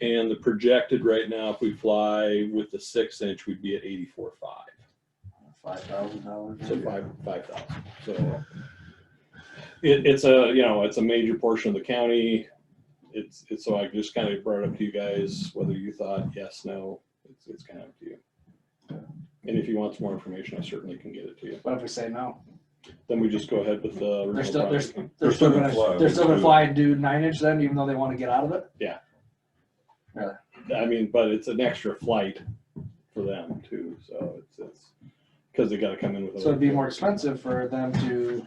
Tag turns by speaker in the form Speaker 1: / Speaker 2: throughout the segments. Speaker 1: And the projected right now, if we fly with the six inch, we'd be at eighty-four five,
Speaker 2: Five thousand dollars.
Speaker 1: so five, five thousand, so. It, it's a, you know, it's a major portion of the county. It's, it's, so I just kind of brought it up to you guys, whether you thought yes, no, it's, it's kind of up to you. And if you want some more information, I certainly can get it to you.
Speaker 2: What if we say no?
Speaker 1: Then we just go ahead with the. original
Speaker 2: They're still, they're,
Speaker 1: project.
Speaker 2: they're still
Speaker 3: gonna fly
Speaker 2: gonna, they're still
Speaker 3: with
Speaker 2: gonna
Speaker 3: the-
Speaker 2: fly and do nine inch then, even though they wanna get out of it?
Speaker 1: I mean, but it's an extra flight for them too, so it's, it's, because they gotta come in with.
Speaker 2: So it'd be more expensive for them to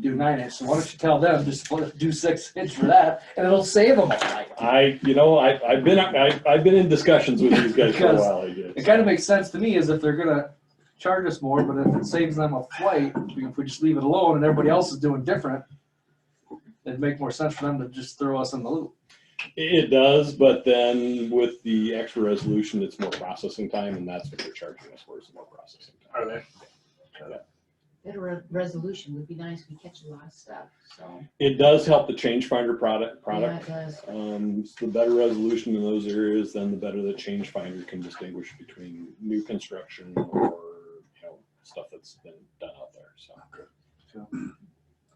Speaker 2: do nine inch. So why don't you tell them, just split- do six inch for that and it'll save them a lot.
Speaker 1: I, you know, I, I've been, I, I've been in discussions with these guys for a
Speaker 2: Because
Speaker 1: while, I
Speaker 2: It
Speaker 1: guess.
Speaker 2: kinda makes sense to me is if they're gonna charge us more, but if it saves them a flight, if we just leave it alone and everybody else is doing different, it'd make more sense for them to just throw us in the loop.
Speaker 1: It does, but then with the extra resolution, it's more processing time and that's what they're charging us for, is more processing. time.
Speaker 2: Are they?
Speaker 4: Better re- resolution would be nice, we catch a lot of stuff, so.
Speaker 1: It does help the change finder product,
Speaker 4: yeah, it
Speaker 1: product.
Speaker 4: does.
Speaker 1: Um, so the better resolution in those areas, then the better the change finder can distinguish between new construction or, you know, stuff that's been done out there, so.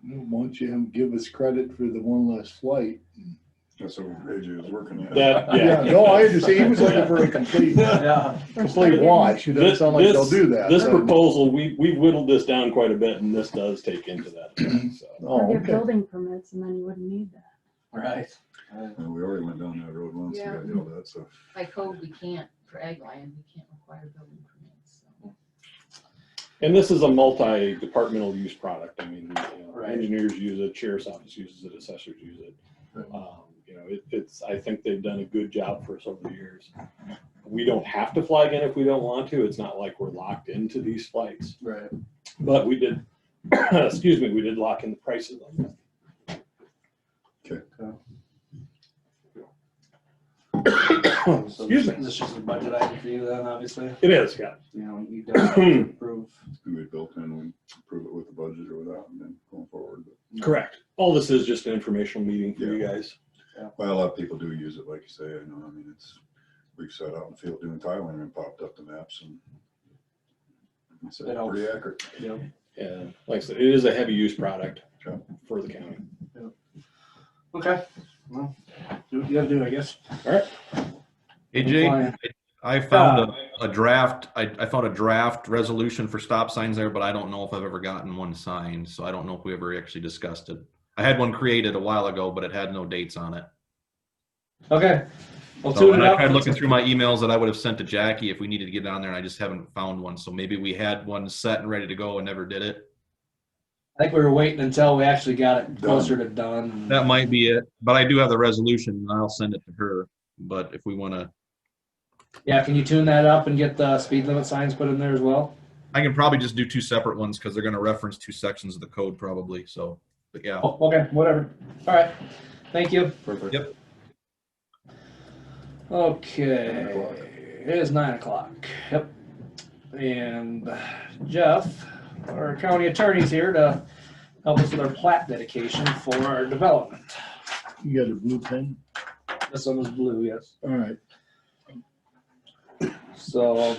Speaker 5: Why don't you have- give us credit for the one last flight?
Speaker 3: That's what AJ was working at.
Speaker 1: That, yeah.
Speaker 5: No, I understand, he was looking for a complete,
Speaker 2: Yeah.
Speaker 5: complete watch, it doesn't sound like they'll do that.
Speaker 1: This
Speaker 5: so-
Speaker 1: proposal, we, we whittled this down quite a bit and this does take into that, so.
Speaker 5: Oh,
Speaker 6: Or get
Speaker 5: okay,
Speaker 6: building permits and then you wouldn't need that.
Speaker 2: Right.
Speaker 3: And we already went down that road once and got yelled at, so.
Speaker 4: By code, we can't, for ag land, we can't require building permits, so.
Speaker 1: And this is a multi-departmental use product. I mean, you know,
Speaker 2: Right.
Speaker 1: engineers use it, sheriff's office uses it, assessors use it.
Speaker 2: Right.
Speaker 1: Um, You know, it, it's, I think they've done a good job for us over the years. We don't have to fly again if we don't want to. It's not like we're locked into these flights,
Speaker 2: Right.
Speaker 1: but we did, excuse me, we did lock in the prices on that.
Speaker 2: So
Speaker 1: Excuse me.
Speaker 2: This is just a budget item for you then, obviously.
Speaker 1: It is, yeah.
Speaker 2: You know, you don't approve.
Speaker 3: And we built in, we prove it with the budget or without, and then going forward. But-
Speaker 1: Correct. All this is just an informational meeting for you guys.
Speaker 3: Well, a lot of people do use it, like you say, I know, I mean, it's, we've set out in the field doing tile and popped up the maps and. It's
Speaker 2: It helps.
Speaker 3: pretty accurate.
Speaker 2: Yep.
Speaker 1: Yeah, like I said, it is a heavy use product
Speaker 3: Sure.
Speaker 1: for the county.
Speaker 2: Okay. Well, do what you gotta do, I guess.
Speaker 7: AJ,
Speaker 2: Fine.
Speaker 7: I found a, a draft, I, I found a draft resolution for stop signs there, but I don't know if I've ever gotten one signed, so I don't know if we ever actually discussed it. I had one created a while ago, but it had no dates on it.
Speaker 2: Okay. Well,
Speaker 7: So,
Speaker 2: tune
Speaker 7: and
Speaker 2: it
Speaker 7: I
Speaker 2: up.
Speaker 7: tried looking through my emails that I would have sent to Jackie if we needed to get on there, and I just haven't found one, so maybe we had one set and ready to go and never did it.
Speaker 2: I think we were waiting until we actually got it closer to done.
Speaker 7: That might be it, but I do have the resolution, and I'll send it to her, but if we wanna,
Speaker 2: Yeah, can you tune that up and get the speed limit signs put in there as well?
Speaker 7: I can probably just do two separate ones, because they're gonna reference two sections of the code probably, so, but yeah.
Speaker 2: Oh, okay, whatever. All right. Thank you.
Speaker 3: Perfect.
Speaker 7: Yep.
Speaker 2: Okay, it is nine o'clock, yep. And Jeff, our county attorney's here to help us with our plat dedication for our development.
Speaker 5: you got a blue pen?
Speaker 2: This one was blue, yes.
Speaker 5: All right,
Speaker 2: So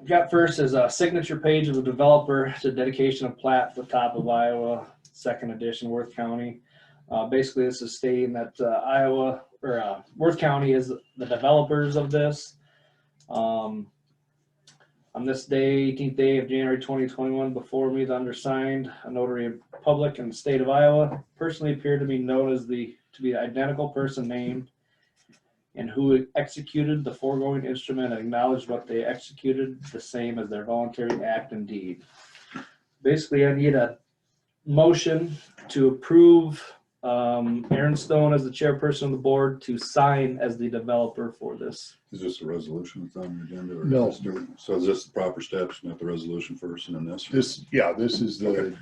Speaker 2: I've got first is a signature page of the developer to dedication of plat for top of Iowa, second edition, Worth County. Uh, basically, this is stating that uh, Iowa, or uh, Worth County is the developers of this. Um, On this day, eighteenth day of January twenty twenty-one, before me, the undersigned, a notary in public in the state of Iowa, personally appeared to be known as the, to be the identical person named and who executed the foregoing instrument and acknowledged what they executed, the same as their voluntary act and deed. Basically, I need a motion to approve um, Aaron Stone as the chairperson of the board to sign as the developer for this.
Speaker 3: Is this a resolution that's on the agenda? or
Speaker 5: No.
Speaker 3: just do- So is this the proper steps, not the resolution first and then this?
Speaker 5: this, yeah, this is the,
Speaker 3: This-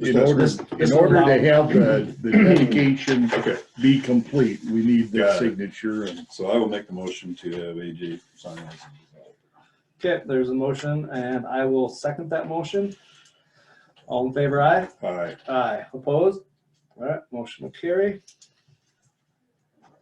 Speaker 5: in order, in order to have the, the dedication
Speaker 3: Okay,
Speaker 5: be complete, we need the
Speaker 3: Got it.
Speaker 5: signature and
Speaker 3: so I will make the motion to have AJ sign this.
Speaker 2: Okay, there's a motion and I will second that motion. All in favor, aye?
Speaker 3: All right,
Speaker 2: Aye. Opposed? All right, motion will carry.